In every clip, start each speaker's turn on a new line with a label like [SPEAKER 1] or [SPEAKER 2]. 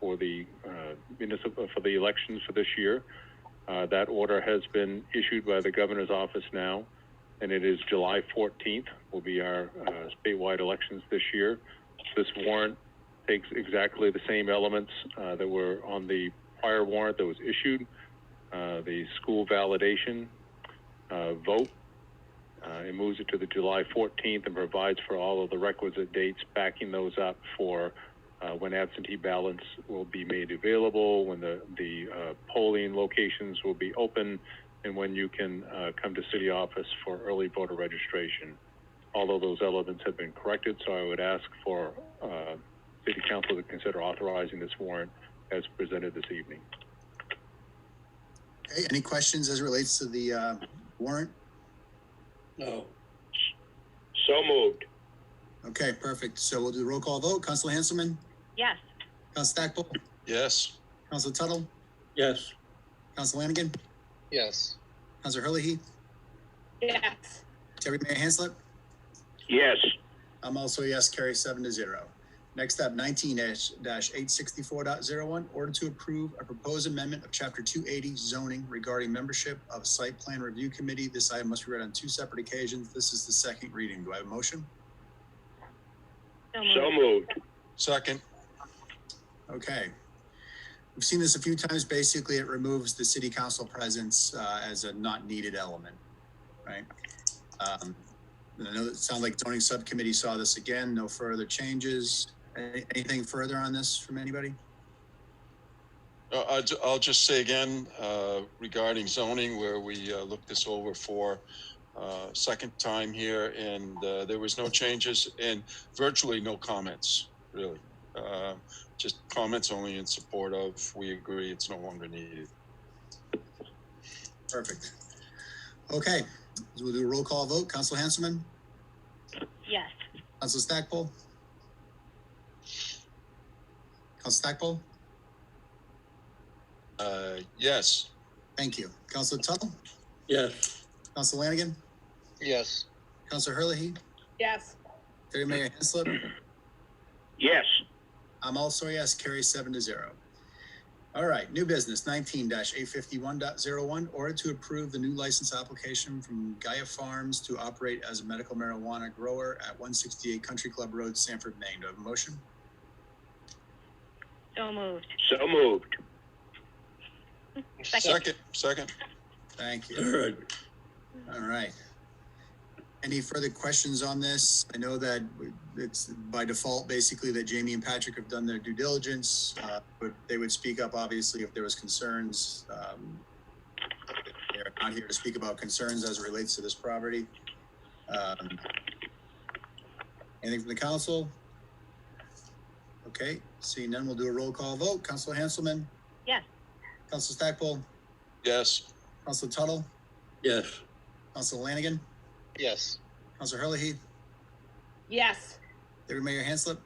[SPEAKER 1] for the uh, municipal, for the elections for this year. Uh, That order has been issued by the governor's office now, and it is July 14th will be our uh, statewide elections this year. This warrant takes exactly the same elements uh, that were on the prior warrant that was issued, uh, the school validation uh, vote, uh, It moves it to the July 14th and provides for all of the requisite dates backing those up for uh, when absentee ballots will be made available, when the, the uh, polling locations will be open, and when you can uh, come to city office for early voter registration. All of those elements have been corrected, so I would ask for uh, city council to consider authorizing this warrant as presented this evening.
[SPEAKER 2] Okay, any questions as it relates to the uh, warrant?
[SPEAKER 3] No.
[SPEAKER 4] So moved.
[SPEAKER 2] Okay, perfect. So we'll do the roll call vote. Council Hanselman,
[SPEAKER 5] Yes,
[SPEAKER 2] Council Stackpole,
[SPEAKER 3] Yes.
[SPEAKER 2] Council Tuttle,
[SPEAKER 3] Yes.
[SPEAKER 2] Council Lanigan,
[SPEAKER 3] Yes.
[SPEAKER 2] Council Hurley,
[SPEAKER 5] yes,
[SPEAKER 2] Deputy Mayor Hanslip.
[SPEAKER 4] Yes.
[SPEAKER 2] I'm also a yes, carry seven to zero. Next up, nineteen dash eight sixty-four dot zero one, order to approve a proposed amendment of chapter two eighty zoning regarding membership of site plan review committee. This item must be read on two separate occasions. This is the second reading. Do I have a motion?
[SPEAKER 5] so
[SPEAKER 4] So
[SPEAKER 5] moved.
[SPEAKER 4] moved.
[SPEAKER 3] Second.
[SPEAKER 2] Okay. We've seen this a few times. Basically, it removes the city council presence uh, as a not needed element, right? Um, I know it sounds like zoning subcommittee saw this again. No further changes. Any- Anything further on this from anybody?
[SPEAKER 3] Uh, I, ju- I'll just say again, uh, regarding zoning, where we, uh, looked this over for, uh, second time here, and, uh, there was no changes and virtually no comments, really. Uh, just comments only in support of, we agree it's no longer needed.
[SPEAKER 2] Perfect. Okay, so we'll do a roll call vote. Council Hanselman,
[SPEAKER 5] Yes,
[SPEAKER 2] Council Stackpole. Council Stackpole,
[SPEAKER 3] Uh, yes.
[SPEAKER 2] thank you. Council Tuttle,
[SPEAKER 3] Yes.
[SPEAKER 2] Council Lanigan,
[SPEAKER 3] Yes.
[SPEAKER 2] Council Hurley,
[SPEAKER 5] yes,
[SPEAKER 2] Deputy Mayor Hanslip,
[SPEAKER 4] Yes.
[SPEAKER 2] I'm also a yes, carry seven to zero. All right, new business nineteen dash eight fifty-one dot zero one, order to approve the new license application from Gaia Farms to operate as a medical marijuana grower at one sixty-eight Country Club Road, Sanford, Maine. Do I have a motion?
[SPEAKER 5] so moved.
[SPEAKER 4] So moved.
[SPEAKER 3] Second, second.
[SPEAKER 2] Thank you. All right. Any further questions on this? I know that it's by default, basically, that Jamie and Patrick have done their due diligence, uh, but they would speak up, obviously, if there was concerns. um, They're not here to speak about concerns as it relates to this property. Um, Anything from the council? Okay, seeing none, we'll do a roll call vote. Council Hanselman?
[SPEAKER 5] Yes.
[SPEAKER 2] Council Stackpole?
[SPEAKER 3] Yes.
[SPEAKER 2] Council Tuttle?
[SPEAKER 3] Yes.
[SPEAKER 2] Council Lanigan?
[SPEAKER 3] Yes.
[SPEAKER 2] Council Hurley,
[SPEAKER 5] Yes,
[SPEAKER 2] Deputy Mayor Hanslip,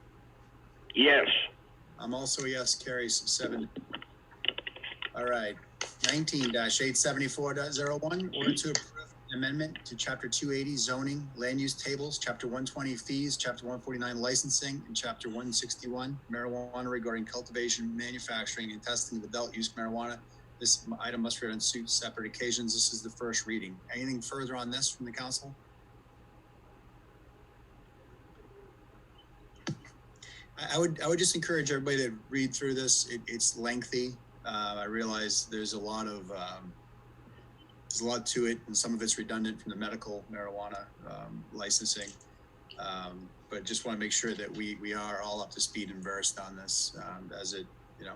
[SPEAKER 4] Yes.
[SPEAKER 2] I'm also a yes, carries seven. All right, nineteen dash eight seventy-four dot zero one, order to approve an amendment to chapter two eighty zoning, land use tables, chapter one twenty fees, chapter one forty-nine licensing, and chapter one sixty-one marijuana regarding cultivation, manufacturing, and testing of adult-use marijuana. This item must be read on two separate occasions. This is the first reading. Anything further on this from the council? I, I would, I would just encourage everybody to read through this. It, it's lengthy. Uh, I realize there's a lot of, um, there's a lot to it and some of it's redundant from the medical marijuana, um, licensing. Um, but just want to make sure that we, we are all up to speed and versed on this, um, as it, you know,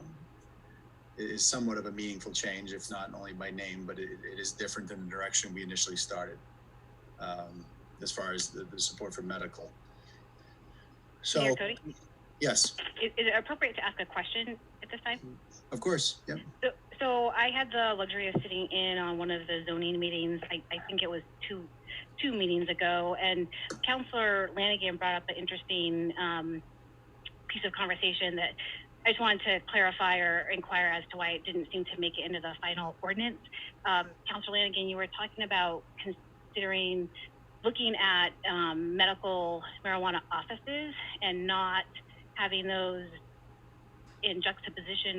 [SPEAKER 2] it is somewhat of a meaningful change, if not only by name, but it, it is different than the direction we initially started. Um, as far as the, the support for medical.
[SPEAKER 5] Mayor
[SPEAKER 2] So,
[SPEAKER 5] Cody,
[SPEAKER 2] yes.
[SPEAKER 5] is, is it appropriate to ask a question at this time?
[SPEAKER 2] Of course, yep.
[SPEAKER 5] So, so I had the luxury of sitting in on one of the zoning meetings. I, I think it was two, two meetings ago, and Counselor Lanigan brought up an interesting um, piece of conversation that I just wanted to clarify or inquire as to why it didn't seem to make it into the final ordinance. Um, Counselor Lanigan, you were talking about considering looking at um, medical marijuana offices and not having those in juxtaposition